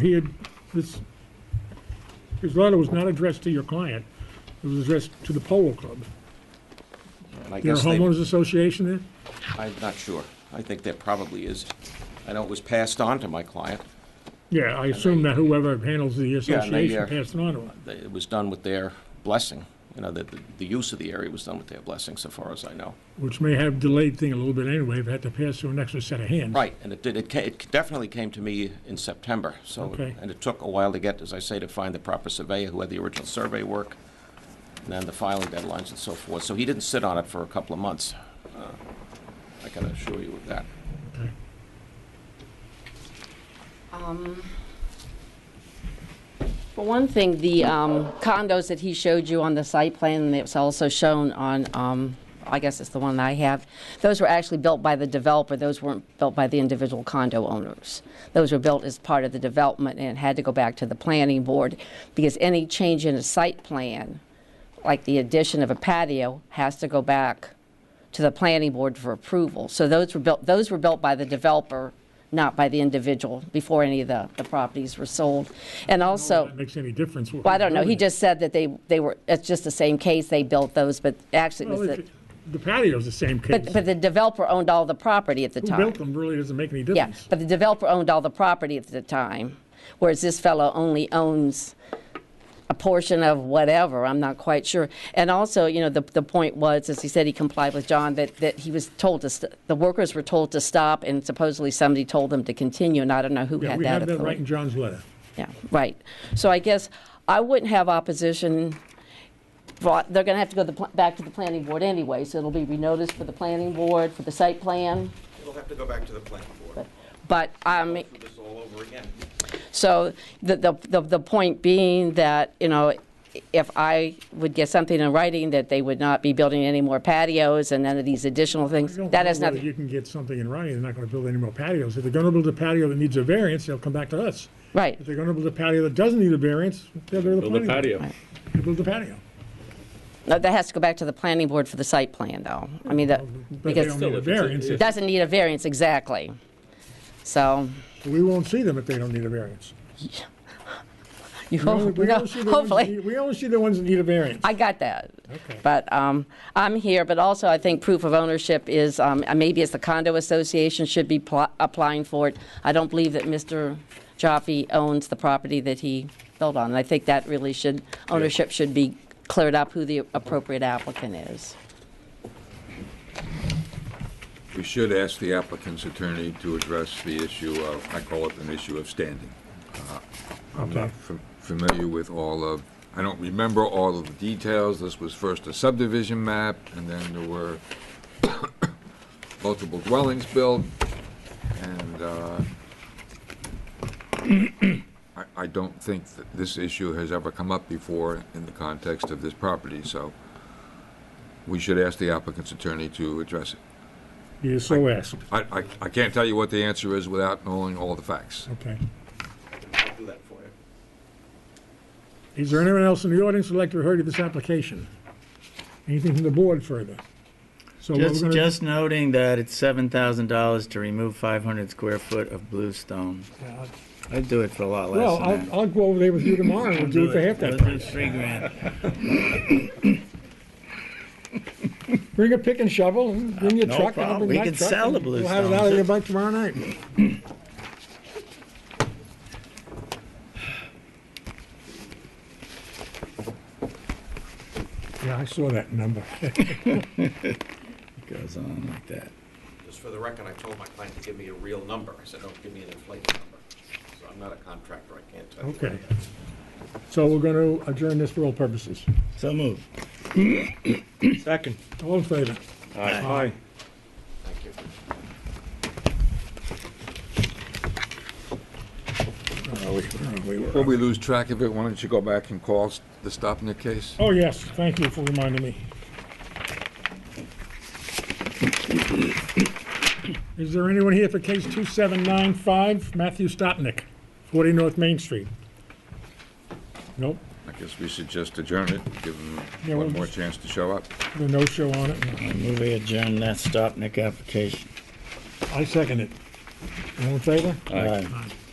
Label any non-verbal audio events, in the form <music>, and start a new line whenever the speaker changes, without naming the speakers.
He had, this, his letter was not addressed to your client. It was addressed to the Polo Club.
And I
Your
guess they,
homeowners association there?
I'm not sure. I think there probably is. I know it was passed on to my client.
Yeah, I assume that whoever handles the
Yeah, and they,
association
uh,
passed it on to him.
They- It was done with their blessing, you know, that the, the use of the area was done with their blessing, so far as I know.
which may have delayed thing a little bit anyway, if it had to pass through an extra set of hands.
Right, and it did, it ca- it definitely came to me in September, so,
Okay.
and it took a while to get, as I say, to find the proper surveyor who had the original survey work, and then the filing deadlines and so forth. So he didn't sit on it for a couple of months. Uh, I can assure you of that.
Okay.
For one thing, the um, condos that he showed you on the site plan, and it's also shown on, um, I guess it's the one that I have, those were actually built by the developer. Those weren't built by the individual condo owners. Those were built as part of the development and had to go back to the planning board because any change in a site plan, like the addition of a patio, has to go back to the planning board for approval. So those were built, those were built by the developer, not by the individual, before any of the, the properties were sold. And also.
That makes any difference.
Well, I don't know, he just said that they, they were, it's just the same case, they built those, but actually
Oh,
it was the,
The patio's the same case.
but, but the developer owned all the property at the
Who
time.
built them really doesn't make any
Yeah,
difference.
but the developer owned all the property at the time, whereas this fellow only owns a portion of whatever, I'm not quite sure. And also, you know, the, the point was, as he said, he complied with John, that, that he was told to, st- the workers were told to stop, and supposedly somebody told them to continue, and I don't know who
Yeah,
had
we
that
have
authority.
that right in John's letter.
Yeah, right. So I guess I wouldn't have opposition, brought- they're going to have to go the pl- back to the planning board anyway, so it'll be renoticed for the planning board, for the site plan,
It'll have to go back to the planning board.
but, um,
Do this all over again.
so the, the, the the point being that, you know, if I would get something in writing that they would not be building any more patios and none of these additional
I
things,
don't
that
know
has
whether
nothing,
You can get something in writing, they're not gonna build any more patios. If they're gonna build a patio that needs a variance, they'll come back to us.
right.
If they're gonna build a patio that doesn't need a variance, they'll go to the
Build a
planning. board.
patio.
They Build a patio.
No, That has to go back to the planning board for the site plan, though. I mean, that,
But they
because
don't
it
need a
if it's a-
variance.
if-
doesn't need a variance, exactly. So.
We won't see them if they don't need a variance.
You
We only-
hope-
we
Oh, no,
only see the ones that
hopefully.
need- We only see the ones that need a variance.
I got that.
Okay.
But um, I'm here, but also I think proof of ownership is, um, uh, maybe it's the condo association should be pl- applying for it. I don't believe that Mr. Jaffe owns the property that he built on. And I think that really should, ownership should be cleared up who the appropriate applicant is.
We should ask the applicant's attorney to address the issue of, I call it an issue of standing. Uh, I'm
Okay.
not fam- familiar with all of, I don't remember all of the details. This was first a subdivision map, and then there were <coughs> multiple dwellings built, and uh, <coughs> I- I don't think that this issue has ever come up before in the context of this property, so we should ask the applicant's attorney to address it.
You're so asked.
I, I, I can't tell you what the answer is without knowing all the facts.
Okay.
I'll do that for you.
Is there anyone else in the audience who'd like to be heard of this application? Anything from the board further? So what we're
Just,
gonna,
just noting that it's seven thousand dollars to remove five hundred square foot of bluestone. I'd do it for a lot
well,
less than
I'll,
that.
I'll go over there with you tomorrow and we'll do it for half that
Let's do
price.
three grand.
Bring a pick and shovel, and bring your
Uh, No
truck, and I'll
problem.
bring
We
my
can
truck,
sell the
and We'll have it out
Bluestone.
of there by tomorrow night. <clears throat> Yeah, I saw that number. <laughs>
Goes on like that.
Just for the record, I told my client to give me a real number. I said, don't give me an inflated number. So I'm not a contractor, I can't tell you.
Okay. So we're gonna adjourn this for all purposes.
So move.
Second.
All in favor?
Aye.
Thank you.
Before we lose track of it, why don't you go back and call s- the Stopnik case?
Oh, yes, thank you for reminding me. Is there anyone here for case 2795, Matthew Stopnick, 40 North Main Street? Nope,
I guess we should just adjourn it, give
Yeah,
them
we'll
one more
just-
chance to show up.
the no-show on it.
I move we adjourn that Stopnik application.
I second it. All in favor?
Aye.
Aye.